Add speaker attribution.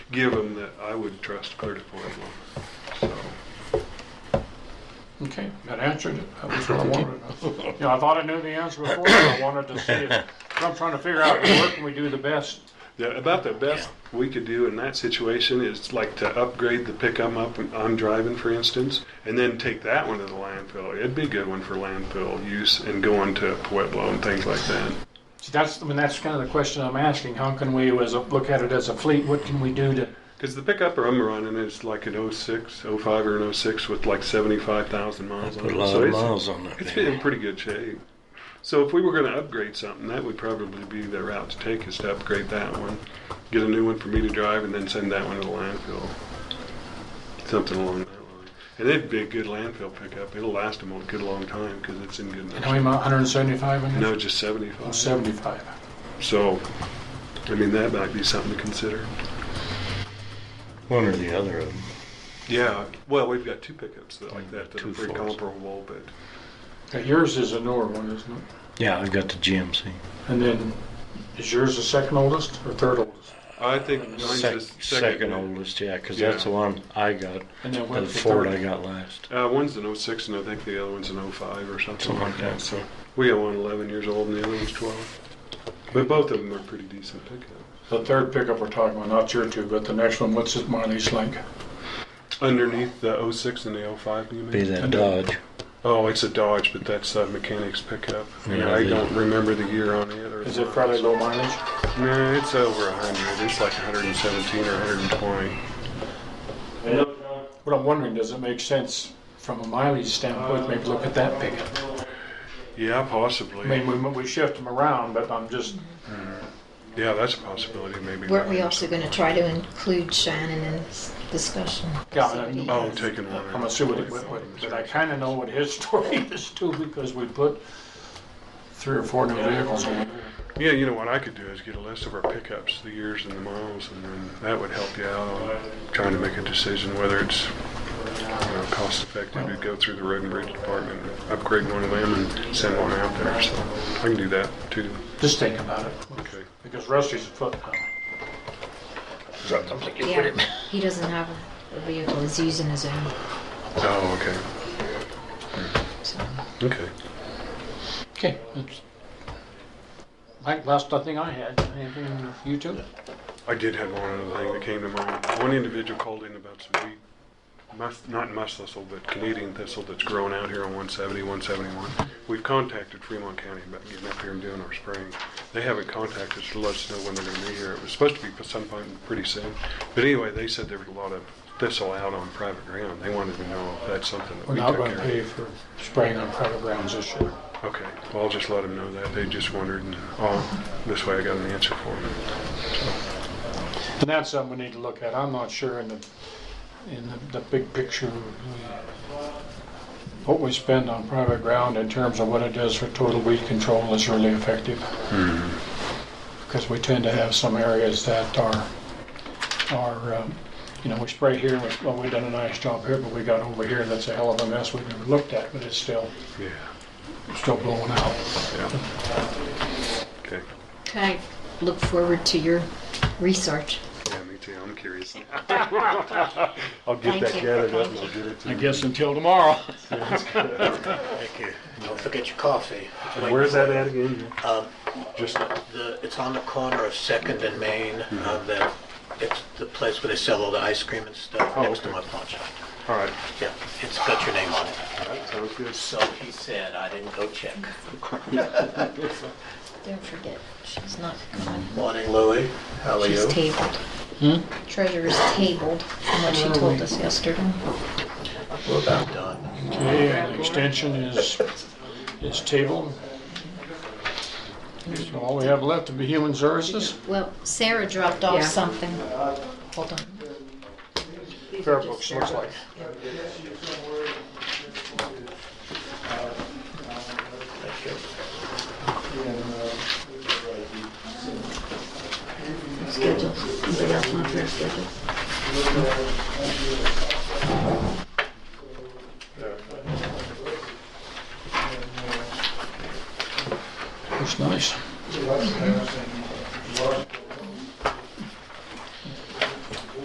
Speaker 1: give them that I would trust Clear to Pueblo. So,
Speaker 2: Okay, that answered it. That was what I wanted. Yeah, I thought I knew the answer before, but I wanted to see it. I'm trying to figure out where can we do the best.
Speaker 1: the, about the best we could do in that situation is like to upgrade the pick I'm up and I'm driving, for instance, and then take that one to the landfill. It'd be a good one for landfill use and going to Pueblo and things like that.
Speaker 2: See, that's, I mean, that's kind of the question I'm asking. How can we, as a, look at it as a fleet, what can we do to,
Speaker 1: Because the pickup I'm running is like an 06, 05 or an 06 with like 75,000 miles on
Speaker 3: Put
Speaker 1: it.
Speaker 3: a lot
Speaker 1: So
Speaker 3: of
Speaker 1: it's-
Speaker 3: miles on that
Speaker 1: It's
Speaker 3: thing.
Speaker 1: been in pretty good shape. So if we were going to upgrade something, that would probably be the route to take is to upgrade that one, get a new one for me to drive, and then send that one to the landfill. Something along that line. And it'd be a good landfill pickup. It'll last them a good long time because it's in good
Speaker 2: how many,
Speaker 1: enough.
Speaker 2: mi- 175 in
Speaker 1: No,
Speaker 2: there?
Speaker 1: just
Speaker 2: Oh,
Speaker 1: 75.
Speaker 2: 75.
Speaker 1: So, I mean, that might be something to consider.
Speaker 3: One or the other of them.
Speaker 1: Yeah. Well, we've got two pickups that, like that that
Speaker 3: Two
Speaker 1: are pretty
Speaker 3: Fords.
Speaker 1: comparable, but
Speaker 2: Okay, Yours is a newer one, isn't it?
Speaker 3: Yeah, I've got the GMC.
Speaker 2: And then, is yours the second oldest or third oldest?
Speaker 1: I think mine's
Speaker 3: Sec-
Speaker 1: the
Speaker 3: second,
Speaker 1: second.
Speaker 3: oldest, yeah, because
Speaker 1: Yeah.
Speaker 3: that's the one I got.
Speaker 2: And then
Speaker 3: The
Speaker 2: what's the
Speaker 3: Ford
Speaker 2: third?
Speaker 3: I got last.
Speaker 1: Uh, one's an 06 and I think the other one's an 05 or something
Speaker 3: Something
Speaker 1: like
Speaker 3: like
Speaker 1: that.
Speaker 3: that.
Speaker 1: So we got one 11 years old and the other one's 12. But both of them are pretty decent pickup.
Speaker 2: The third pickup we're talking about, not your two, but the next one, what's it mileage like?
Speaker 1: Underneath the 06 and the 05, you mean?
Speaker 3: Be that Dodge.
Speaker 1: Oh, it's a Dodge, but that's a mechanic's pickup.
Speaker 3: Yeah,
Speaker 1: I
Speaker 3: the-
Speaker 1: don't remember the year on it. Or
Speaker 2: Is it fairly low mileage?
Speaker 1: No, it's over 100. It's like 117 or 120.
Speaker 2: What I'm wondering, does it make sense from a mileage standpoint, maybe look at that pickup?
Speaker 1: Yeah, possibly. Mm.
Speaker 2: I mean, we, we shift them around, but I'm just,
Speaker 1: yeah, that's a possibility. Maybe.
Speaker 4: Weren't we
Speaker 1: buying
Speaker 4: also
Speaker 1: some-
Speaker 4: going to try to include Shannon in this discussion?
Speaker 2: Yeah,
Speaker 4: See what he
Speaker 2: I-
Speaker 1: Oh,
Speaker 4: has?
Speaker 1: taking one.
Speaker 2: I'm assuming, what- what- but I kinda know what his story is too, because we put three or four new vehicles on there.
Speaker 1: Yeah, you know what I could do is get a list of our pickups, the years and the miles, and then that would help you out on trying to make a decision whether it's you know, cost effective to go through the road and bridge department, upgrade one of them, and send one out there. So I can do that too.
Speaker 2: Just think about it,
Speaker 1: Okay.
Speaker 2: because Rusty's a foot now.
Speaker 4: Yeah, he doesn't have a- a vehicle, he's using his own,
Speaker 1: Oh,
Speaker 4: so.
Speaker 1: okay. Okay.
Speaker 2: Okay. that's- Mike, last, I think I had, anything, you two?
Speaker 1: I did have one other thing that came to mind. One individual called in about some wheat, mus- not musk thistle, but Canadian thistle that's grown out here on 170, 171. We've contacted Fremont County about getting up here and doing our spraying. They haven't contacted us to let us know when they're going to be here. It was supposed to be sometime pretty soon. But anyway, they said there was a lot of thistle out on private ground. They wanted to know if that's something that
Speaker 2: We're
Speaker 1: we
Speaker 2: not
Speaker 1: took
Speaker 2: gonna
Speaker 1: care
Speaker 2: pay for spraying on private grounds this year.
Speaker 1: of. Okay, well, I'll just let them know that. They just wondered, and oh, this way I got an answer for them.
Speaker 2: And that's something we need to look at. I'm not sure in the, in the, the big picture, uh, what we spend on private ground in terms of what it does for total weed control is really effective. Hmm. Because we tend to have some areas that are, are, um, you know, we spray here, we- well, we done a nice job here, but we got over here, that's a hell of a mess we've never looked at, but it's still,
Speaker 1: Yeah,
Speaker 2: still blowing out.
Speaker 1: yeah. Okay.
Speaker 4: Can I look forward to your research?
Speaker 1: Yeah, me too. I'm curious. I'll get
Speaker 4: Thank
Speaker 1: that
Speaker 4: you.
Speaker 1: gathered up and
Speaker 4: Thank
Speaker 1: I'll get it to
Speaker 2: I
Speaker 1: you.
Speaker 2: guess until tomorrow.
Speaker 5: Thank you. Don't forget your coffee.
Speaker 1: Where's that at again?
Speaker 5: Um,
Speaker 1: Just,
Speaker 5: the, it's on the corner of Second and Main.
Speaker 1: Mm-hmm.
Speaker 5: Uh, the, it's the place where they sell all the ice cream and stuff
Speaker 1: Oh,
Speaker 5: next to
Speaker 1: okay.
Speaker 5: my pawn shop.
Speaker 1: all right.
Speaker 5: Yeah, it's got your name on it.
Speaker 1: All right, sounds good.
Speaker 5: So he said I didn't go check.
Speaker 4: Don't forget, she's not coming.
Speaker 5: Morning, Louie. How are
Speaker 4: She's
Speaker 5: you?
Speaker 4: tabled.
Speaker 2: Hmm?
Speaker 4: Treasurer's tabled, from what she told us yesterday.
Speaker 5: We're about done.
Speaker 2: Okay, and the extension is, is tabled. So all we have left to be human services.
Speaker 4: Well, Sarah dropped off something. Hold on.
Speaker 2: Fair books, looks like.
Speaker 5: Thank you.
Speaker 4: Schedules. Anybody else want their schedules?
Speaker 2: Looks nice.